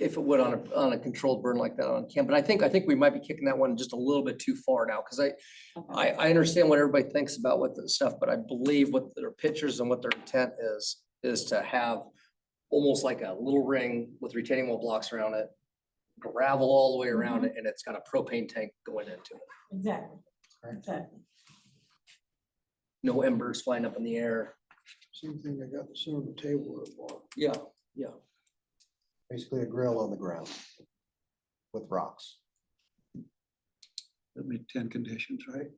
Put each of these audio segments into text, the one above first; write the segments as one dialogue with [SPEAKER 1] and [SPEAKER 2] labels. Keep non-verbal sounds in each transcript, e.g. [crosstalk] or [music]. [SPEAKER 1] if it would on a, on a controlled burn like that on camp. But I think, I think we might be kicking that one just a little bit too far now, because I,
[SPEAKER 2] Okay.
[SPEAKER 1] I, I understand what everybody thinks about what the stuff, but I believe what their pictures and what their intent is, is to have almost like a little ring with retaining wall blocks around it, gravel all the way around it, and it's got a propane tank going into it.
[SPEAKER 2] Exactly,
[SPEAKER 3] Right.
[SPEAKER 2] exactly.
[SPEAKER 1] No embers flying up in the air.
[SPEAKER 4] Same thing I got the silver table up on.
[SPEAKER 1] Yeah,
[SPEAKER 3] Basically a grill on the ground with rocks.
[SPEAKER 4] That'd be ten conditions, right?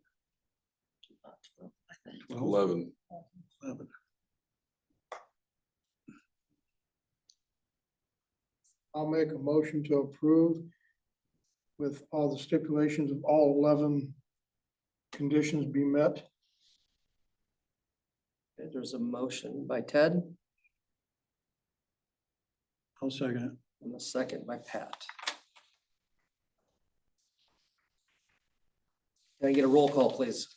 [SPEAKER 4] Twelve,
[SPEAKER 5] Eleven.
[SPEAKER 4] eleven. I'll make a motion to approve with all the stipulations of all eleven conditions be met.
[SPEAKER 1] Okay, there's a motion by Ted
[SPEAKER 4] I'll second
[SPEAKER 1] and a second by Pat. Can I get a roll call, please?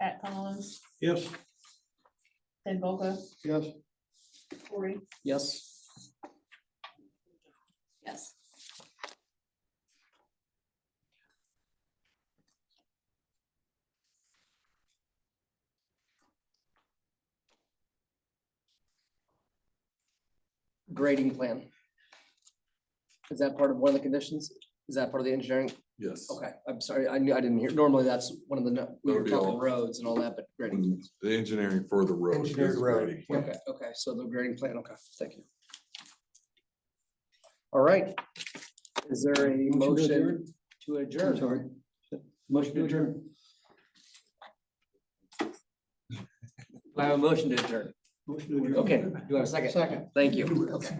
[SPEAKER 2] Pat Collins,
[SPEAKER 4] it. Yes.
[SPEAKER 2] Ted Boga,
[SPEAKER 4] Yes.
[SPEAKER 2] Corey.
[SPEAKER 1] Yes?
[SPEAKER 2] Yes.
[SPEAKER 1] grading plan. Is that part of one of the conditions? Is that part of the engineering?
[SPEAKER 5] Yes.
[SPEAKER 1] Okay, I'm sorry, I knew, I didn't hear, normally that's one of the, no- we
[SPEAKER 5] That
[SPEAKER 1] were
[SPEAKER 5] would be
[SPEAKER 1] talking
[SPEAKER 5] all.
[SPEAKER 1] roads and all that, but grading.
[SPEAKER 5] And The engineering for the road.
[SPEAKER 3] Engineered
[SPEAKER 5] is
[SPEAKER 3] road.
[SPEAKER 5] ready.
[SPEAKER 1] Okay, okay, so the grading plan, okay, thank you. All right. Is there a motion to adjourn? Sorry. Motion to adjourn. I have a motion to adjourn. Okay, do I have a second?
[SPEAKER 4] Second.
[SPEAKER 1] Thank you. Okay.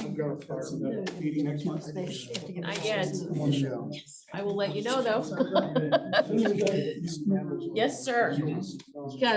[SPEAKER 4] I'm gonna fire that meeting next month.
[SPEAKER 6] Not yet. I will let you know though.
[SPEAKER 4] Yes,
[SPEAKER 6] [laughs] Yes, sir.
[SPEAKER 4] You
[SPEAKER 6] Got it.